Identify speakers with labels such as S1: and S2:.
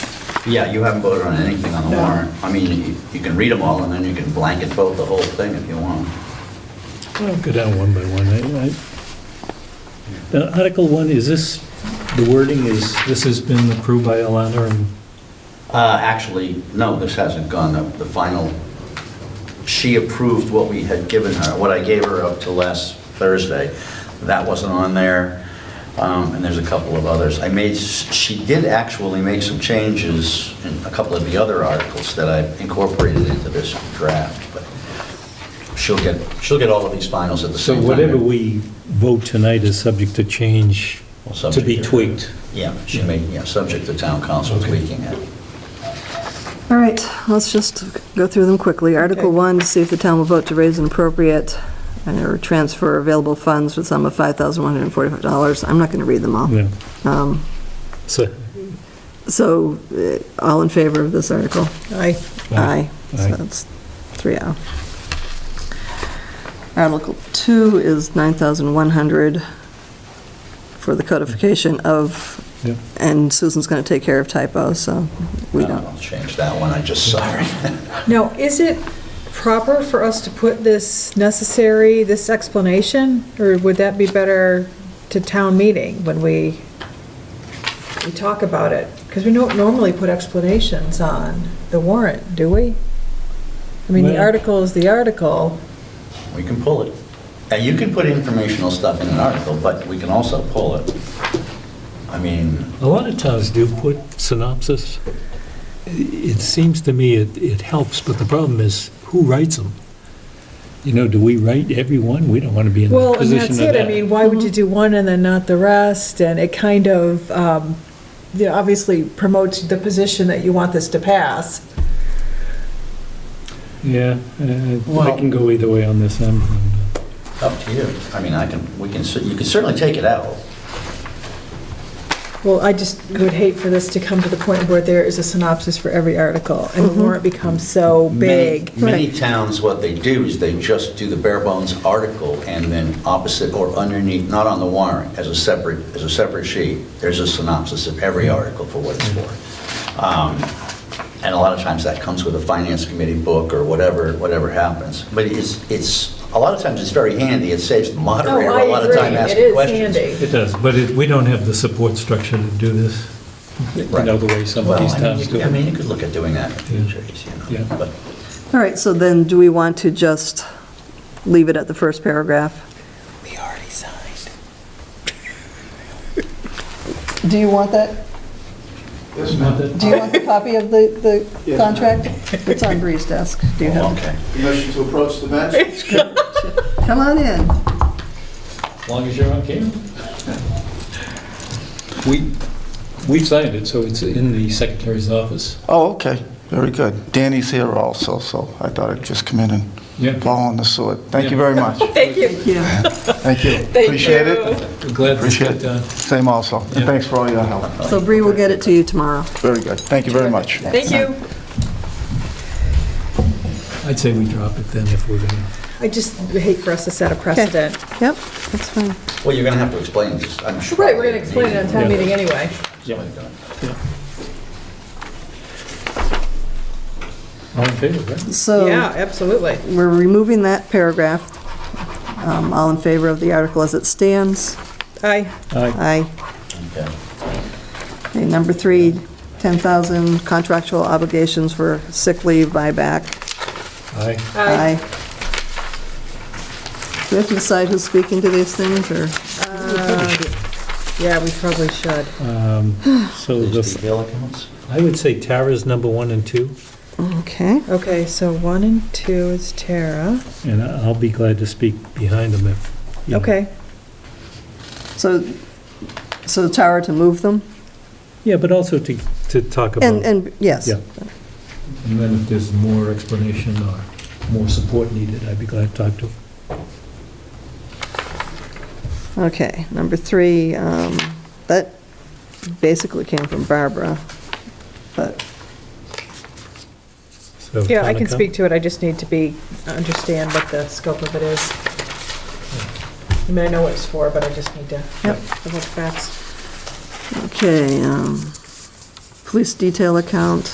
S1: Yeah, you haven't voted on anything on the warrant. I mean, you- you can read them all, and then you can blanket vote the whole thing if you want.
S2: Well, go down one by one. I- I- Now, Article 1, is this, the wording is, this has been approved by Alana and,
S1: Uh, Actually, no, this hasn't gone up, the final, she approved what we had given her, what I gave her up to last Thursday. That wasn't on there, um, and there's a couple of others. I made, s- she did actually make some changes in a couple of the other articles that I incorporated into this draft, but she'll get, she'll get all of these finals at the same
S2: so
S1: time.
S2: whatever we vote tonight is subject to change,
S1: Well,
S2: to
S1: subject
S2: be tweaked.
S1: Yeah, she made, yeah, subject to town council
S2: Okay.
S1: tweaking it.
S3: All right, let's just go through them quickly. Article 1, to see if the town will vote to raise and appropriate and or transfer available funds with sum of $5,145. I'm not going to read them all.
S2: Yeah.
S3: Um,
S2: So,
S3: So, eh, all in favor of this article?
S4: Aye.
S3: Aye. So
S2: Aye.
S3: that's three oh. Article two is 9,100 for the codification of,
S2: Yep.
S3: and Susan's going to take care of typos, so
S2: Uh,
S3: we don't.
S1: Uh, I'll change that one, I just saw it.
S4: Now, is it proper for us to put this necessary, this explanation? Or would that be better to town meeting when we, we talk about it? Because we don't normally put explanations on the warrant, do we? I mean, the
S2: Well-
S4: article is the article.
S1: We can pull it. And you can put informational stuff in an article, but we can also pull it. I mean,
S2: A lot of towns do put synopsis. It seems to me it, it helps, but the problem is, who writes them? You know, do we write every one? We don't want to be in the
S4: Well, and
S2: position of
S4: that's
S2: that.
S4: it, I mean, why would you do one and then not the rest? And it kind of, um, you know, obviously promotes the position that you want this to pass.
S2: Yeah, uh, I
S1: Well-
S2: can go either way on this. I'm- I'm-
S1: up to you. I mean, I can, we can, cer- you can certainly take it out.
S4: Well, I just would hate for this to come to the point where there is a synopsis for every article, and the warrant becomes so
S1: Many-
S4: big.
S1: Many towns, what they do is they just do the bare bones article and then opposite or underneath, not on the warrant, as a separate, as a separate sheet, there's a synopsis of every article for what it's
S4: Mm-hmm.
S1: for. Um, And a lot of times that comes with a finance committee book or whatever, whatever happens. But it's, it's, a lot of times it's very handy, it saves
S4: Oh,
S1: the moderator a lot of time asking questions.
S2: It does, but it, we don't have the support structure to do this, you
S1: Right.
S2: know, the way some of
S1: Well,
S2: these
S1: I mean,
S2: towns
S1: you
S2: do.
S1: could- I mean, you could look at doing that in
S2: Yeah.
S1: future, you know,
S2: Yeah.
S1: but
S3: All right, so then do we want to just leave it at the first paragraph?
S4: We already signed.
S3: Do you want that?
S5: Yes, ma'am.
S3: Do you want the copy of the, the
S5: Yes.
S3: contract? It's on Bree's desk. Do you have it?
S1: Okay.
S5: Permission to approach the bench?
S3: Come on in.
S2: As long as you're on camera. We, we've signed it, so it's in the secretary's office.
S5: Oh, okay, very good. Danny's here also, so I thought I'd just come in and
S2: Yeah,
S5: fall on the sword. Thank you very much.
S4: Thank you.
S3: Yeah.
S5: Thank you. Appreciate it.
S2: we're glad this
S5: Appreciate
S2: got done.
S5: it. Same also. And
S2: Yeah.
S5: thanks for all your help.
S3: So Bree will get it to you tomorrow.
S5: Very good. Thank you very much.
S4: Thank you.
S2: I'd say we drop it then if we're gonna.
S4: I just hate for us to set a precedent.
S3: Yep, that's fine.
S1: Well, you're going to have to explain this, I'm sure.
S4: Right, we're going to explain it on town meeting anyway.
S2: All in favor, right?
S3: So.
S4: Yeah, absolutely.
S3: we're removing that paragraph. Um, All in favor of the article as it stands?
S4: Aye.
S2: Aye.
S3: Aye.
S1: Okay.
S3: Okay, number three, 10,000 contractual obligations for sick leave buyback.
S2: Aye.
S3: Aye. Do we have to decide who's speaking to these things, or?
S4: Yeah, we probably should.
S2: So
S1: These
S2: the,
S1: bill accounts?
S2: I would say Tara's number one and two,
S3: Okay,
S4: Okay, so one and two is Tara.
S2: and I- I'll be glad to speak behind them if. you know.
S4: Okay,
S3: so, so Tara to move them?
S2: Yeah, but also to, to talk about.
S3: And, and, yes.
S2: Yeah. And then if there's more explanation or more support needed, I'd be glad to talk to.
S3: Okay, number three, um, that basically came from Barbara, but,
S2: So,
S4: yeah, I can
S2: Monica?
S4: speak to it, I just need to be, understand what the scope of it is. I mean, I know what it's for, but I just need to,
S3: Yep.
S4: the whole facts.
S3: okay. um, police detail account,